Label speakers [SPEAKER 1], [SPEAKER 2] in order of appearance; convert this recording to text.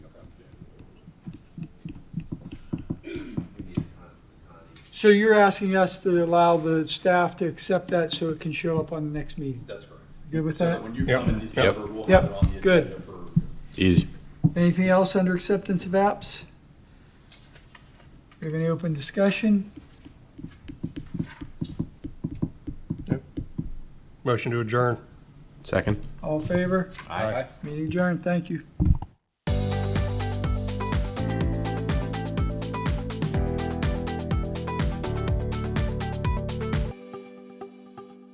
[SPEAKER 1] So you're asking us to allow the staff to accept that so it can show up on the next meeting?
[SPEAKER 2] That's correct.
[SPEAKER 1] Good with
[SPEAKER 2] So
[SPEAKER 1] that?
[SPEAKER 2] When you
[SPEAKER 3] Yep.
[SPEAKER 2] come in December, we'll
[SPEAKER 1] Yep.
[SPEAKER 2] have it on the
[SPEAKER 1] Good.
[SPEAKER 2] agenda for.
[SPEAKER 4] Easy.
[SPEAKER 1] Anything else under acceptance of apps? We have any open discussion?
[SPEAKER 3] Motion to adjourn.
[SPEAKER 4] Second.
[SPEAKER 1] All in favor?
[SPEAKER 5] Aye.
[SPEAKER 1] Meeting adjourned. Thank you.